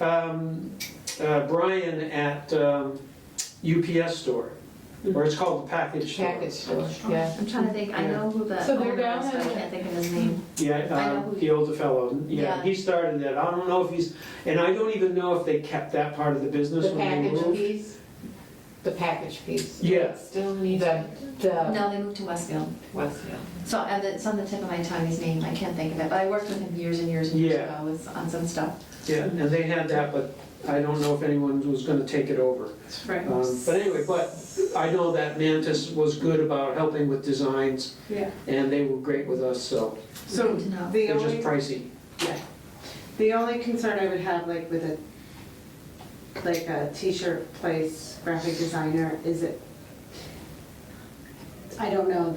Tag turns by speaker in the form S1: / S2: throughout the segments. S1: um, uh, Brian at um, UPS store, or it's called the package store.
S2: Package store, yeah.
S3: I'm trying to think, I know who the
S2: So they're
S3: owner
S2: down
S3: is, but I
S2: in-
S3: can't think of his name. I
S1: Yeah,
S3: know
S1: uh,
S3: who-
S1: the older fellow, yeah,
S3: Yeah.
S1: he started that, I don't know if he's, and I don't even know if they kept that part of the business
S2: The
S1: when they
S2: package
S1: moved.
S2: piece, the package piece.
S1: Yeah.
S2: Still needs the, the
S3: No, they moved to Westfield.
S2: Westfield.
S3: So uh, it's on the tip of my tongue, his name, I can't think of it, but I worked with him years and years and years
S1: Yeah.
S3: ago with- on some stuff.
S1: Yeah, and they had that, but I don't know if anyone was gonna take it over.
S3: Right.
S1: Um, But anyway, but I know that Mantis was good about helping with designs,
S4: Yeah,
S1: and they were great with us, so
S4: so
S3: Good to know.
S4: the
S1: they're just
S4: only,
S1: pricey.
S4: the only concern I would have like with a, like a t-shirt place graphic designer is it, I don't know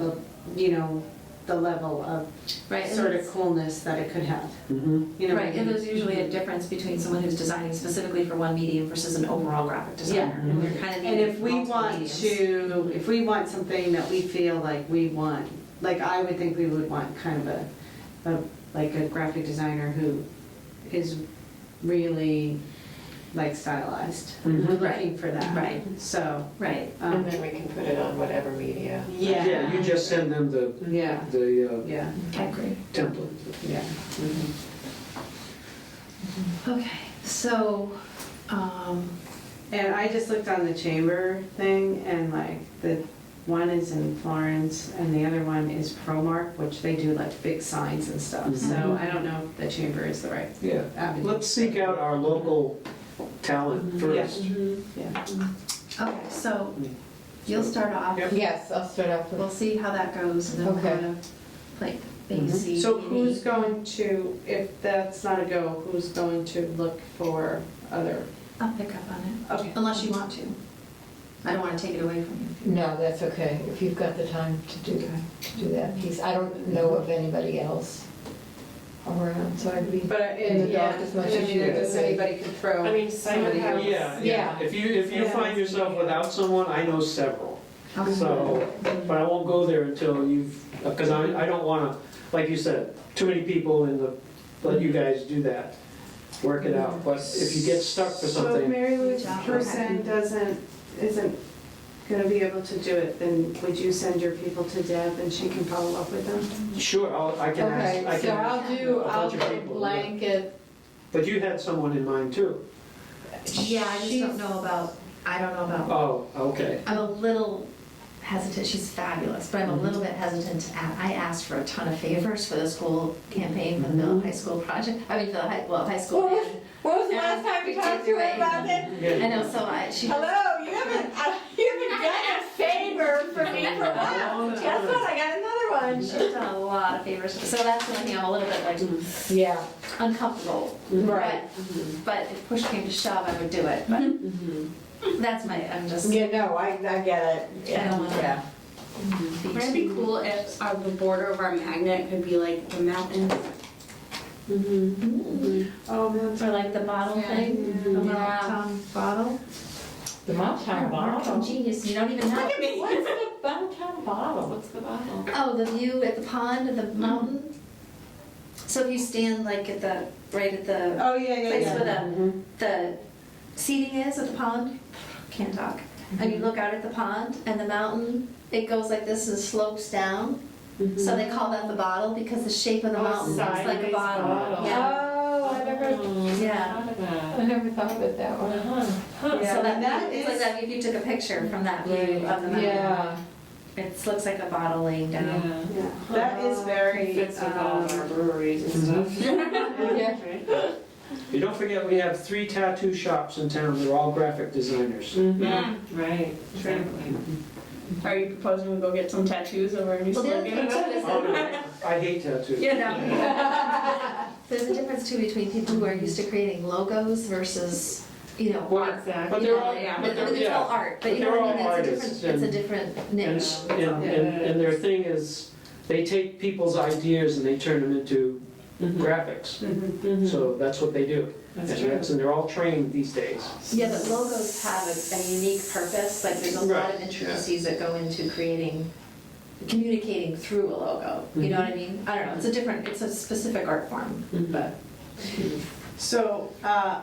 S4: the, you know, the level of
S3: Right, and
S4: sort of
S3: it's-
S4: coolness that it could have,
S1: Mhm.
S4: you know? what I
S3: right, and
S4: mean?
S3: there's usually a difference between someone who's designing specifically for one medium versus an overall graphic designer.
S1: Yeah.
S3: And we're kind of
S4: And
S3: needing
S4: if we
S3: multiple
S4: want
S3: mediums.
S4: to, if we want something that we feel like we want, like I would think we would want kind of a, a, like a graphic designer who is really like stylized.
S1: Mhm.
S4: We're
S3: Mm-hmm. Right.
S4: looking for that.
S3: Right.
S4: So,
S3: Right,
S2: And
S4: um,
S2: then we can put it on whatever media.
S1: Yeah, you
S4: yeah,
S1: just send them the,
S4: yeah,
S1: the uh,
S4: yeah,
S3: I agree.
S1: template.
S4: yeah.
S3: Okay, so, um,
S4: And I just looked on the chamber thing and like the one is in Florence and the other one is Promark, which they do like big signs and stuff. So I don't know if the chamber is the right
S1: Yeah.
S4: avenue.
S1: Let's seek out our local talent first.
S2: Mm-hmm.
S4: Yeah.
S3: okay, so you'll start off.
S1: Yep.
S2: Yes, I'll start off
S3: We'll
S2: with,
S3: see how that goes and then we'll
S2: Okay. Mm-hmm.
S3: kind of like maybe
S1: Mhm.
S3: see.
S4: So
S3: maybe-
S4: who's going to, if that's not a go, who's going to look for other?
S3: I'll pick up on
S4: Okay.
S3: it, unless you want to. I don't want to take it away from
S2: no, that's okay, if you've got the time to do, to do that piece. I don't know of anybody else around, so I'd be,
S4: But, uh,
S2: In the dark
S4: yeah,
S2: as much
S4: I
S2: as
S4: mean,
S2: you
S4: if
S2: could
S4: there's
S2: say.
S4: Anybody could throw.
S5: I mean, Simon
S4: somebody
S5: has-
S4: else.
S1: Yeah, yeah.
S2: Yeah.
S1: If you, if you
S4: Yeah.
S1: find yourself without someone, I know several.
S3: you.
S1: So, but I won't go there until you've, because I, I don't want to, like you said, too many people in the, let you guys do that, work it out. But if you get stuck for
S4: So
S1: something,
S4: Mary Lou's
S3: Good job.
S4: person doesn't, isn't gonna be able to do it, then would you send your people to Deb and she can follow up with them?
S1: sure, I'll, I can ask, I
S2: okay,
S1: can
S2: so
S1: ask.
S2: I'll do,
S1: a
S2: I'll
S1: bunch
S2: do
S1: of people, yeah.
S2: blanket.
S1: But you had someone in mind too.
S3: Yeah, I just don't know about, I don't know about,
S1: Oh, okay.
S3: I'm a little hesitant, she's fabulous, but I'm
S2: Mm-hmm.
S3: a little bit hesitant to, a- I asked for a ton of favors for this whole campaign for the middle high school project, I mean, for the high, well, high school.
S2: What was- When was
S3: the last time we talked to her about
S2: this?
S3: I
S1: Yeah.
S3: know, so I, she.
S2: Hello, you haven't, uh, you haven't done a favor for me for a while. Guess what, I got another
S3: She's done a lot of favors, so that's the only thing I'm a little bit like
S2: one. Yeah,
S3: uncomfortable.
S2: Right.
S3: But but if push came to shove, I would do it, but
S2: Mm-hmm.
S3: that's my, I'm just.
S2: yeah, no, I, I get it.
S3: I don't wanna-
S2: Yeah.
S6: Would it be cool if uh, the border of our magnet could be like the mountain?
S2: Mm-hmm.
S4: Oh, that's.
S3: For like the bottle thing, the little
S6: Yeah.
S3: tongue bottle.
S2: The Oh, Mountain
S3: Marketing Genius, you don't even know.
S2: What's the Mountain bottle?
S5: What's the bottle?
S3: Oh, the view at the pond, at the
S6: Mm-hmm.
S3: mountain. So if you stand like at the, right at the
S4: Oh, yeah, yeah,
S3: place
S4: yeah.
S3: where the, the seating is at the pond, can't talk. And you look out at the pond and the mountain, it goes like this and slopes down. So they call that the bottle because the shape of the
S5: Oh,
S3: mountain looks like a
S5: sideways
S3: bottle.
S5: bottle.
S3: Yeah.
S2: Oh, I never,
S3: Yeah.
S2: I never thought of it that way.
S3: So
S4: Yeah,
S3: that,
S4: that
S3: it's like
S4: is-
S3: that if you took a picture from that view of the mountain.
S2: Yeah,
S3: It looks like a bottle laying down.
S5: Yeah.
S4: Yeah, That
S2: Uh,
S4: is very.
S5: Fits with all of our
S4: um,
S5: breweries and stuff.
S2: yeah,
S5: Right?
S1: You don't forget, we have three tattoo shops in town, they're all graphic designers.
S6: Yeah.
S5: Right, exactly.
S6: Are you proposing we go get some tattoos over our new
S3: Well, the other
S6: slogan?
S3: thing too is
S1: Oh,
S3: that
S1: no, I hate tattoos.
S6: You know,
S3: there's a difference too between people who are used to creating logos versus, you know,
S1: Well,
S3: art.
S1: But
S3: You
S1: they're
S3: know,
S1: all,
S3: like,
S1: but they're,
S3: It's all
S1: yeah.
S3: art, but
S1: But
S3: you know what I
S1: they're all
S3: mean, it's
S1: artists
S3: a different,
S1: and-
S3: it's a different
S1: And,
S3: niche.
S1: s- and, and and their thing is, they take people's ideas and they turn them into graphics.
S4: mhm.
S1: So that's what they do.
S5: That's
S1: And
S5: true.
S1: that's- And they're all trained these days.
S3: Yeah, but logos have a, a unique purpose, like there's a lot
S1: Right,
S3: of intricacies that go into creating, communicating through a logo, you know what I mean? I don't know, it's a different, it's a specific art form, but.
S4: So, uh,